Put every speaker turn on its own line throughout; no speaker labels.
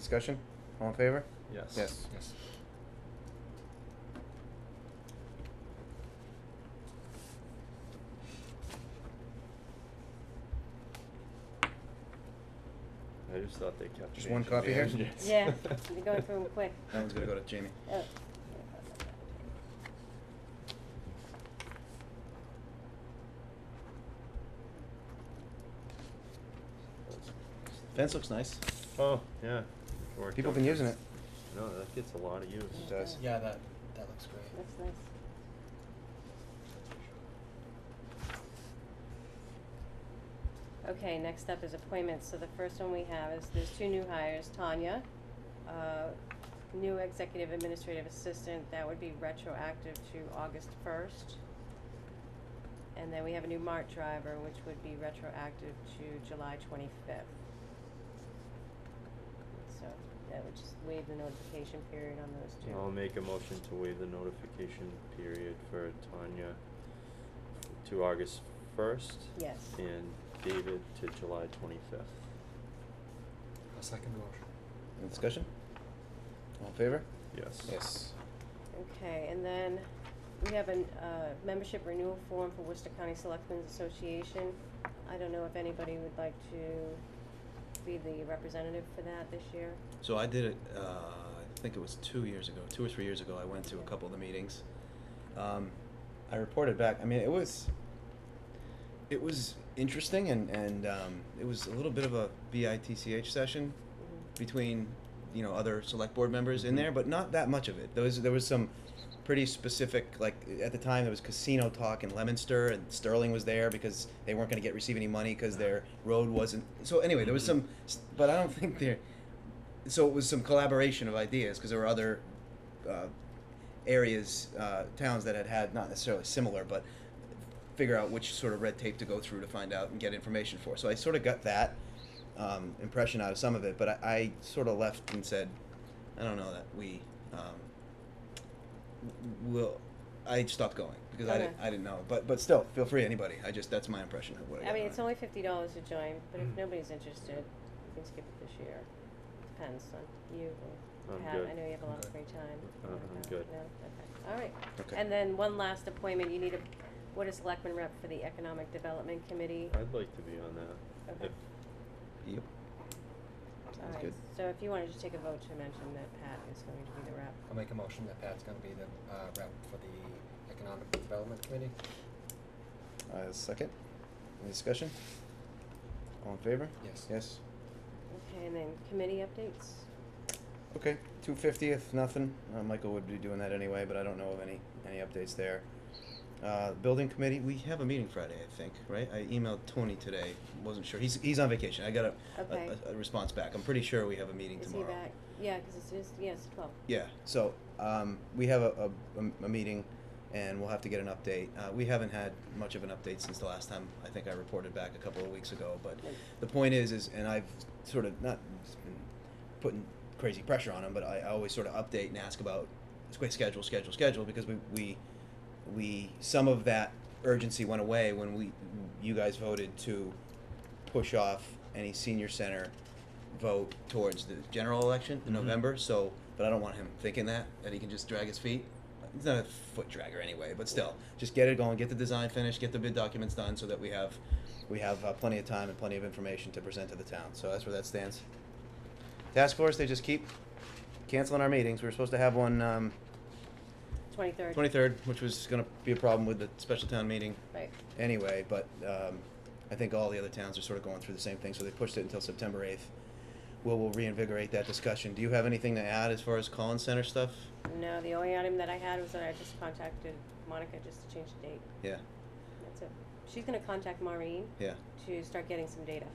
Discussion? All in favor?
Yes.
Yes.
Yes.
I just thought they kept.
Just one
changing
copy
the
here?
engines.
Yeah, we're going through 'em quick.
That one's gonna go to Jamie.
Oh.
Fence looks nice.
Oh, yeah. Or
People
don't-
been using it.
No, that gets a lot of use.
It does.
Yeah, that, that looks great.
That's nice. Okay, next up is appointments. So the first one we have is, there's two new hires, Tanya, uh, new executive administrative assistant, that would be retroactive to August first. And then we have a new Mart driver, which would be retroactive to July twenty-fifth. So that would just waive the notification period on those two.
I'll make a motion to waive the notification period for Tanya to August first.
Yes.
And David to July twenty-fifth.
A second motion.
Any discussion? All in favor?
Yes.
Yes.
Okay, and then we have an, uh, membership renewal form for Worcester County Selectmen's Association. I don't know if anybody would like to be the representative for that this year.
So I did it. Uh, I think it was two years ago, two or three years ago. I went to a couple of the meetings. Um, I reported back. I mean, it was it was interesting, and and um, it was a little bit of a bitch session
Mhm.
between you know other select board members in
Mhm.
there, but not that much of it. There was there was some pretty specific like at the time there was casino talk in Leominster and Sterling was there because they weren't going to get receive any money because their road wasn't. So anyway, there was
Mhm.
some, but I don't think there. So it was some collaboration of ideas because there were other uh, areas, uh, towns that had had not necessarily similar, but figure out which sort of red tape to go through to find out and get information for. So I sort of got that um, impression out of some of it, but I, I sort of left and said, I don't know that we um, w- will. I stopped going because I
Okay.
didn't. I didn't know, but but still, feel free anybody. I just that's my impression of what.
I
got
mean,
on
it's
it.
only fifty dollars to join, but if
Mm-hmm.
Mhm.
nobody's interested, you can skip it this year. Depends on you or
I'm
Pat.
good.
I know you have a lot of
Okay.
free time.
Uh,
What
I'm
about-
good.
no? Okay, all right.
Okay.
And then one last appointment, you need a, what is selectman rep for the Economic Development Committee?
I'd like to be on that.
Okay.
If-
Yep.
All
Sounds
right,
good.
so if you wanted to take a vote to mention that Pat is going to be the rep.
I'll make a motion that Pat's gonna be the, uh, rep for the Economic Development Committee.
Uh, second. Any discussion? All in favor?
Yes.
Yes.
Okay, and then committee updates?
Okay. Two fiftieth. Nothing. Uh, Michael would be doing that anyway, but I don't know of any any updates there. Uh, building committee. We have a meeting Friday, I think. Right? I emailed Tony today. wasn't sure. He's he's on vacation. I got a a-
Okay.
a, a, response back. I'm pretty sure we have a meeting
Is he
tomorrow.
back? Yeah, because it's, it's, yeah, it's twelve.
Yeah, so, um, we have a, a- a, a meeting and we'll have to get an update. Uh, we haven't had much of an update since the last time, I think I reported back a couple of weeks ago, but the point is, is, and I've sort of not been putting crazy pressure on him, but I, I always sort of update and ask about squ- schedule, schedule, schedule, because we, we, we, some of that urgency went away when we, you guys voted to push off any senior center vote towards the general election in
Mhm.
November. So, but I don't want him thinking that that he can just drag his feet. He's not a foot dragger anyway, but still, just get it going, get the design finished, get the bid documents done, so that we have we have uh, plenty of time and plenty of information to present to the town. So that's where that stands. Task force, they just keep canceling our meetings. We were supposed to have one um,
Twenty-third.
23rd, which was going to be a problem with the special town meeting
Right,
anyway, but um, I think all the other towns are sort of going through the same thing, so they pushed it until September eighth. We'll, we'll reinvigorate that discussion. Do you have anything to add as far as Collins Center stuff?
no, the only item that I had was that I just contacted Monica just to change the date,
Yeah,
that's it. She's gonna contact Maureen
yeah.
to start getting some data.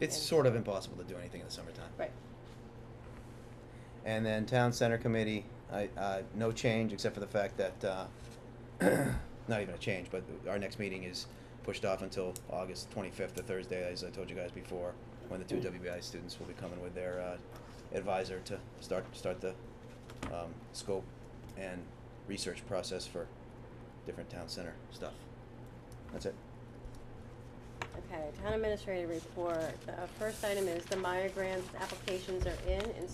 It's
And-
sort of impossible to do anything in the summertime.
Right,
And then Town Center Committee, I, uh, no change except for the fact that, uh, not even a change, but our next meeting is pushed off until August twenty-fifth, the Thursday, as I told you guys before, when the two WBI students will be coming with their, uh, advisor to start, start the, um, scope and research process for different town center stuff. That's it.
all uh, Okay, town administrator report. The first item is the Meyer grant applications are in and